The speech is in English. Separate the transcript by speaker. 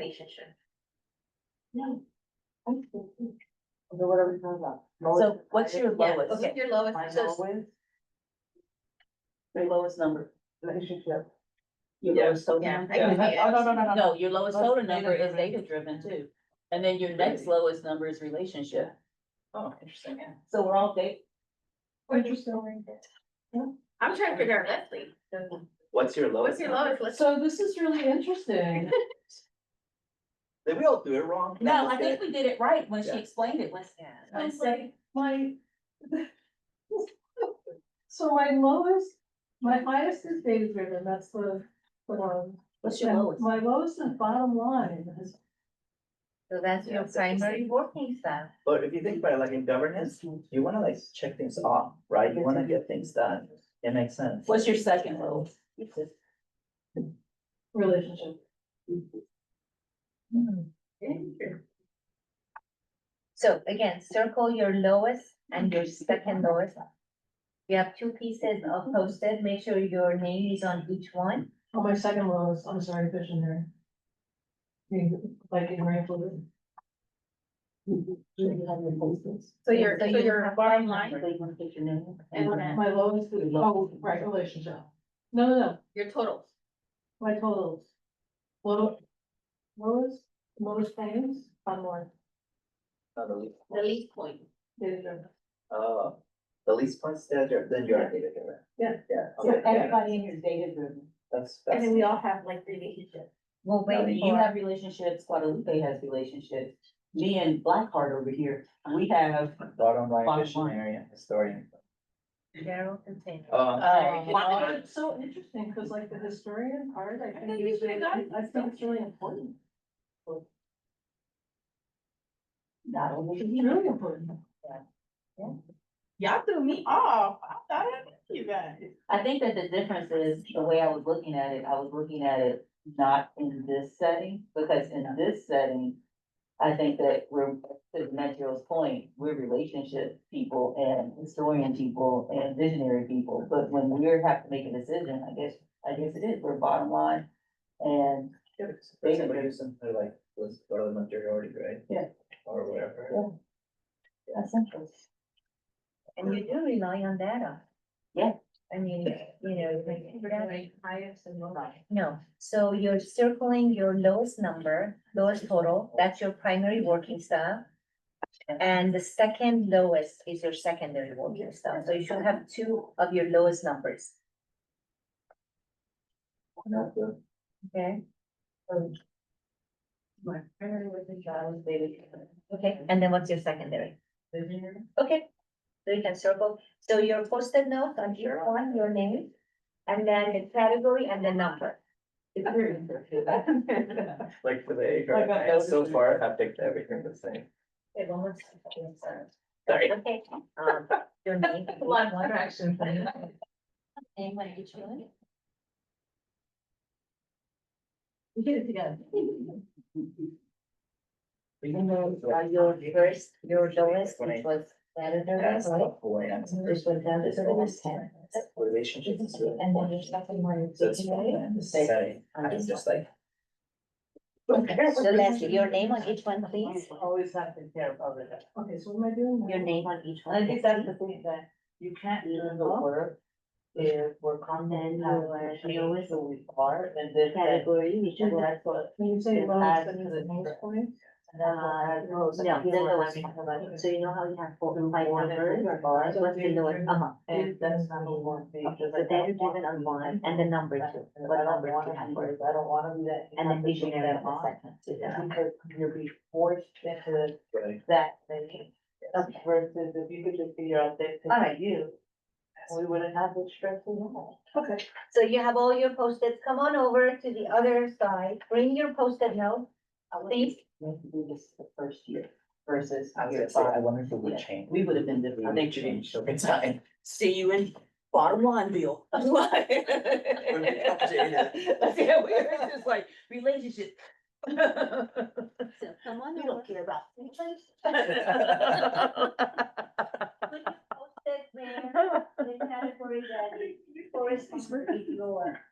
Speaker 1: relationship.
Speaker 2: No. So what are we talking about?
Speaker 3: So what's your
Speaker 1: Yeah,
Speaker 3: lowest?
Speaker 1: okay, your lowest,
Speaker 2: My
Speaker 1: so
Speaker 2: lowest
Speaker 3: Your lowest number?
Speaker 2: relationship.
Speaker 3: Your
Speaker 2: Yeah.
Speaker 3: lowest total?
Speaker 1: Yeah,
Speaker 3: number?
Speaker 1: I can see
Speaker 2: Oh, no, no, no, no.
Speaker 3: No, your lowest total number is
Speaker 2: Data-driven.
Speaker 3: data driven too. And then your next lowest number is relationship. Oh, interesting. So we're all date,
Speaker 2: Interesting.
Speaker 1: I'm trying to figure out Leslie,
Speaker 4: What's your lowest?
Speaker 1: what's your lowest, let's,
Speaker 2: So this is really interesting.
Speaker 4: Did we all do it wrong?
Speaker 3: no, I think we did it right when she
Speaker 4: Yeah.
Speaker 3: explained it, let's,
Speaker 2: I'm
Speaker 3: let's say.
Speaker 2: like, my. So my lowest, my highest is data driven, that's the, the one.
Speaker 3: What's your
Speaker 2: And
Speaker 3: lowest?
Speaker 2: My lowest and bottom line is
Speaker 1: so that's your primary working style.
Speaker 4: But if you think about it, like in governance, you wanna like check things off, right? You wanna get things done. It makes sense.
Speaker 3: What's your second lowest?
Speaker 2: relationship.
Speaker 1: Hmm. So again, circle your lowest and your second lowest. You have two pieces of post-it, make sure your name is on each one.
Speaker 2: Oh, my second lowest, I'm sorry, visionary. I mean, Like in rifle.
Speaker 1: So your, so your bottom
Speaker 2: And
Speaker 1: then-
Speaker 2: my lowest is, oh, right, relationship. No, no, no,
Speaker 1: Your totals.
Speaker 2: my totals. Low, lowest, lowest things, bottom line,
Speaker 4: Uh, The least-
Speaker 1: The least point.
Speaker 2: data driven.
Speaker 4: uh, the least points that you're, then you're data driven.
Speaker 2: Yeah.
Speaker 4: Yeah, okay, yeah,
Speaker 3: in here is data driven.
Speaker 4: that's,
Speaker 1: And
Speaker 4: that's,
Speaker 1: then we all have like relationships. We'll wait
Speaker 3: You
Speaker 1: for,
Speaker 3: have relationships, Guadalupe has relationships. Me and Blackheart over here, we have
Speaker 4: bottom line,
Speaker 3: Bottom
Speaker 4: visionary and historian.
Speaker 1: Gerald and Taylor.
Speaker 4: Um,
Speaker 3: Uh,
Speaker 2: Oh, Wow, It's so interesting, because like the historian part, I think is really, I think it's really important.
Speaker 3: not only.
Speaker 2: It's really important.
Speaker 5: Y'all threw me off. I thought I knew you guys.
Speaker 3: I think that the difference is the way I was looking at it, I was looking at it not in this setting, because in this setting. I think that we're, to Metro's point, we're relationship people and historian people and visionary people, but when we are have to make a decision, I guess, I guess it is, we're bottom line. And
Speaker 4: yeah, for example, you said, like, was go to the majority, right?
Speaker 3: Yeah.
Speaker 4: Or whatever.
Speaker 3: Yeah. essential,
Speaker 1: And you do rely on data.
Speaker 3: Yeah.
Speaker 1: I mean, you know, like, that-
Speaker 2: Highest and lowest.
Speaker 1: no, so you're circling your lowest number, lowest total, that's your primary working style. And the second lowest is your secondary working style, so you should have two of your lowest numbers,
Speaker 4: Not the-
Speaker 1: okay?
Speaker 3: My primary was the child, baby.
Speaker 1: Okay, and then what's your secondary? Okay, so you can circle, so your post-it note on each one, your name, and then the category and the number.
Speaker 4: Like for the age,
Speaker 2: Like
Speaker 4: right?
Speaker 2: that
Speaker 4: I- so
Speaker 2: elderly.
Speaker 4: far I've picked everything the same.
Speaker 1: Okay, one more second, sorry.
Speaker 4: Sorry.
Speaker 1: Okay, um, your name.
Speaker 2: Lot of action.
Speaker 1: Name, what you choose?
Speaker 2: We did it together.
Speaker 1: And then, uh, your first, your lowest,
Speaker 4: When I
Speaker 1: which was better than
Speaker 4: asked
Speaker 1: this, right?
Speaker 4: about boy, I'm sorry,
Speaker 1: This was down to
Speaker 4: this
Speaker 1: the last
Speaker 4: always-
Speaker 1: ten.
Speaker 4: Relationships is really
Speaker 1: And then your
Speaker 4: important.
Speaker 1: second one.
Speaker 4: So it's fine, the setting, I'm just like.
Speaker 1: So Leslie, your name on each one, please,
Speaker 3: Always have to care about it.
Speaker 2: Okay, so what am I doing? now?
Speaker 1: your name on each one.
Speaker 3: I think that's the thing that you can't learn the work if we're
Speaker 1: Then
Speaker 3: content,
Speaker 1: you
Speaker 3: how
Speaker 1: are-
Speaker 3: we feel with who we are, and then that.
Speaker 1: Category, which
Speaker 3: And
Speaker 1: one?
Speaker 3: that's what,
Speaker 2: When you say
Speaker 3: It
Speaker 2: lowest,
Speaker 3: adds
Speaker 2: that
Speaker 3: to
Speaker 2: means
Speaker 3: the
Speaker 2: the most
Speaker 3: number.
Speaker 2: point?
Speaker 1: Uh,
Speaker 3: no,
Speaker 1: no, then the lowest one. so you know how you have four and five numbers, what's the lowest, uh-huh.
Speaker 3: And that's number one.
Speaker 1: Okay, so that is driven on one, and the number two, what
Speaker 3: I don't
Speaker 1: number
Speaker 3: wanna
Speaker 1: two
Speaker 3: be,
Speaker 1: number,
Speaker 3: I don't wanna be that.
Speaker 1: and then
Speaker 3: you
Speaker 1: visionary
Speaker 3: have
Speaker 1: on
Speaker 3: to
Speaker 1: the second. to
Speaker 3: share that
Speaker 1: that.
Speaker 3: on, Because you'll be forced into
Speaker 4: Right.
Speaker 3: that thing
Speaker 1: Okay,
Speaker 3: versus if you could just figure out that
Speaker 1: All
Speaker 3: thing
Speaker 1: right.
Speaker 3: for you. We wouldn't have the stress at all.
Speaker 2: Okay.
Speaker 1: so you have all your post-its, come on over to the other side, bring your post-it note, please.
Speaker 3: Maybe do this the first year versus
Speaker 4: I was
Speaker 3: year
Speaker 4: gonna say, I
Speaker 3: five.
Speaker 4: wonder if it would
Speaker 3: Yeah.
Speaker 4: change.
Speaker 3: We would have been different.
Speaker 4: I think change over time.
Speaker 3: See you in bottom line, Bill. That's why.
Speaker 4: we come to it.
Speaker 3: Yeah, we're just like relationship.
Speaker 1: So come on
Speaker 3: We
Speaker 1: over.
Speaker 3: don't care about.
Speaker 1: Put your post-it there, the category that corresponds with your